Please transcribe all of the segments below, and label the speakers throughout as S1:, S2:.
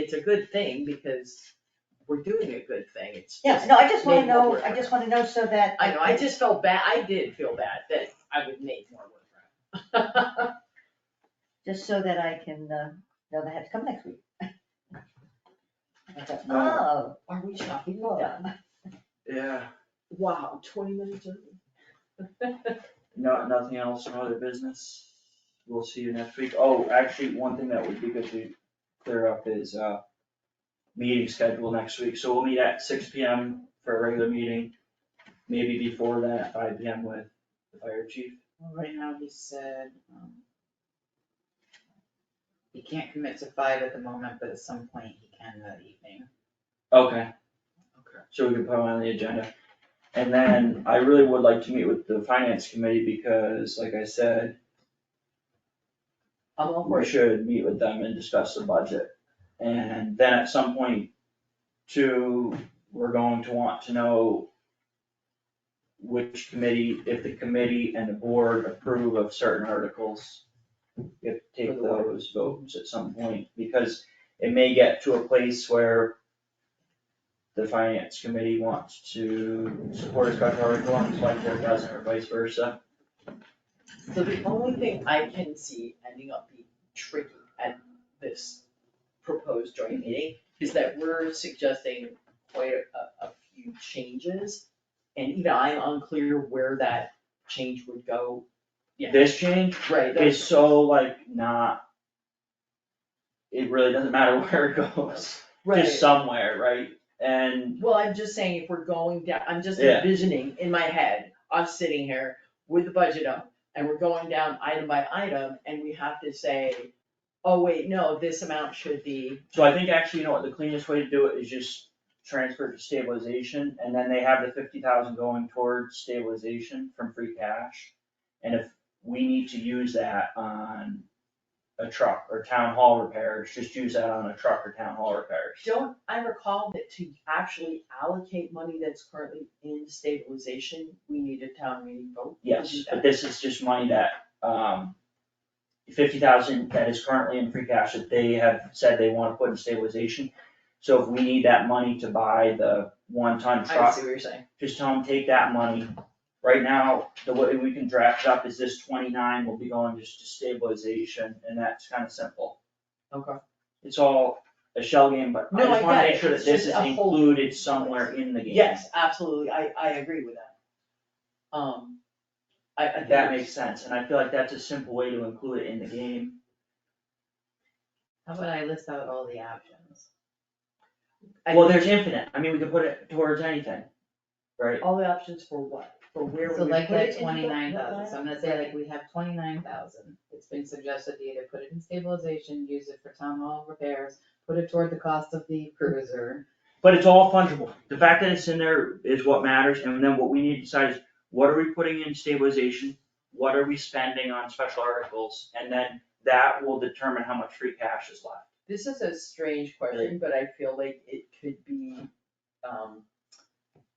S1: it's a good thing because we're doing a good thing, it's
S2: Yeah,
S1: just.
S2: no, I just wanna
S1: made more
S2: know,
S1: work.
S2: I just wanna know so that.
S1: I know, I just felt bad, I did feel bad that I would make more work. for him.
S2: Just so that I can, uh, know that I have to come next week.
S1: I thought, "Oh,
S2: Oh,
S1: Are we shopping
S2: Look.
S1: done?
S3: Yeah,
S1: Wow, twenty minutes early.
S3: no, nothing else, no other business. We'll see you next week. Oh, actually, one thing that would be good to clear up is, uh, meeting schedule next week. So we'll meet at six P M for a regular meeting. Maybe before that, five P M with the fire chief.
S4: Well, Right now, he said, um, he can't commit to five at the moment, but at some point he can that evening.
S3: Okay.
S1: Okay.
S3: So we can put it on the agenda. And then I really would like to meet with the finance committee because, like I said,
S1: I'm all for
S3: we
S1: it.
S3: should meet with them and discuss the budget. And then at some point, too, we're going to want to know which committee, if the committee and the board approve of certain articles, we have to take
S1: For the warrant.
S3: those votes at some point, because it may get to a place where the finance committee wants to support a special article and the select board doesn't, or vice versa.
S1: So the only thing I can see ending up being tricky at this proposed joint meeting is that we're suggesting quite a, a few changes. And even I'm unclear where that change would go. Yeah.
S3: This change
S1: Right, that's-
S3: is so like not. It really doesn't matter where it goes, just
S1: right.
S3: somewhere, right? And
S1: Well, I'm just saying, if we're going down, I'm just
S3: Yeah.
S1: envisioning in my head, us sitting here with the budget up, and we're going down item by item, and we have to say, oh, wait, no, this amount should be.
S3: so I think actually, you know what, the cleanest way to do it is just transfer to stabilization, and then they have the fifty thousand going towards stabilization from free cash. And if we need to use that on a truck or town hall repairs, just use that on a truck or town hall repairs.
S1: Don't I recall that to actually allocate money that's currently in stabilization, we need a town meeting vote? to do
S3: Yes,
S1: that?
S3: but this is just money that, um, fifty thousand that is currently in free cash that they have said they wanna put in stabilization. So if we need that money to buy the one-ton
S1: I
S3: truck,
S1: see what you're saying.
S3: just tell them, take that money. Right now, the way we can draft up is this twenty-nine will be going just to stabilization, and that's kinda simple.
S1: Okay.
S3: It's all a shell game, but I
S1: No, I
S3: just wanna
S1: get
S3: make
S1: it.
S3: sure that
S1: It's
S3: this
S1: just
S3: is
S1: a whole-
S3: included somewhere in the game.
S1: Yes, absolutely, I, I agree with that. Um, I, I think.
S3: That makes sense, and I feel like that's a simple way to include it in the game.
S4: How about I list out all the options?
S1: I
S3: Well,
S1: think
S3: there's infinite, I mean, we could put it towards anything, right?
S1: All the options for what? For where we
S4: So
S1: would
S4: like
S1: put it
S4: that
S1: into the-
S4: twenty-nine thousand, so I'm gonna say like
S1: Right.
S4: we have twenty-nine thousand, it's been suggested to either put it in stabilization, use it for town hall repairs, put it toward the cost of the cruiser.
S3: But it's all fungible, the fact that it's in there is what matters, and then what we need to decide is, what are we putting in stabilization? What are we spending on special articles, and then that will determine how much free cash is left.
S1: This is a strange question, but I feel like it could be, um,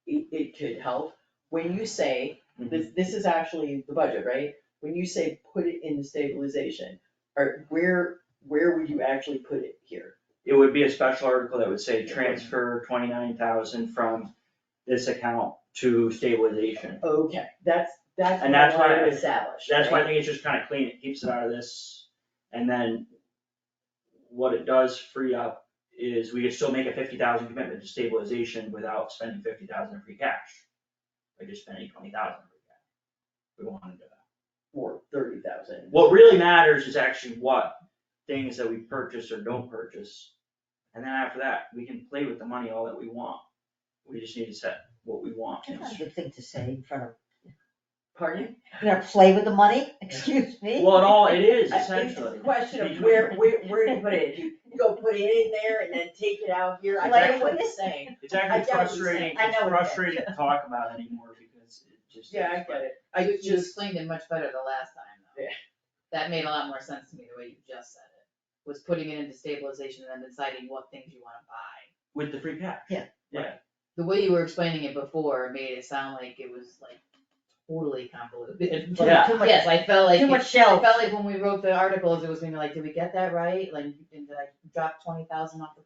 S1: it, it could help. When you say, this, this is actually the budget, right? When you say put it in stabilization, or where, where would you actually put it here?
S3: It would be a special article that would say, transfer twenty-nine thousand from this account to stabilization.
S1: Okay, that's, that's
S3: And
S1: what I
S3: that's why
S1: wanted to
S3: I-
S1: establish,
S3: That's why I
S1: right?
S3: think it's just kinda clean, it keeps it out of this, and then what it does free up is we can still make a fifty thousand commitment to stabilization without spending fifty thousand in free cash. By just spending twenty thousand in free cash. We don't wanna do that.
S1: Or thirty thousand.
S3: What really matters is actually what things that we purchase or don't purchase. And then after that, we can play with the money all that we want. We just need to set what we want.
S2: That's not a good thing to say in front of,
S1: Pardon?
S2: you're gonna play with the money, excuse me?
S3: Well, it all, it is
S1: I think it's
S3: essentially.
S1: a question of where, where, where do you put it? You go put it in there and then take it out here, I
S3: Like
S1: get what
S2: with-
S1: you're saying.
S3: It's
S1: I
S3: actually
S1: get what you're
S3: frustrating,
S1: saying.
S2: I
S3: it's
S2: know what you're saying.
S3: frustrating to talk about anymore because it just.
S1: Yeah, I get it.
S4: You-
S1: I
S4: You
S1: just,
S4: explained it much better the last time though.
S1: Yeah.
S4: That made a lot more sense to me the way you just said it, was putting it into stabilization and then deciding what things you wanna buy.
S3: With the free cash.
S2: Yeah.
S3: Yeah.
S4: the way you were explaining it before made it sound like it was like totally convoluted.
S2: Too-
S3: Yeah.
S2: Too much,
S4: Yes, I felt like,
S2: too
S4: it-
S2: much
S4: I
S2: shell.
S4: felt like when we wrote the articles, it was gonna be like, did we get that right? Like, and did I drop twenty thousand off the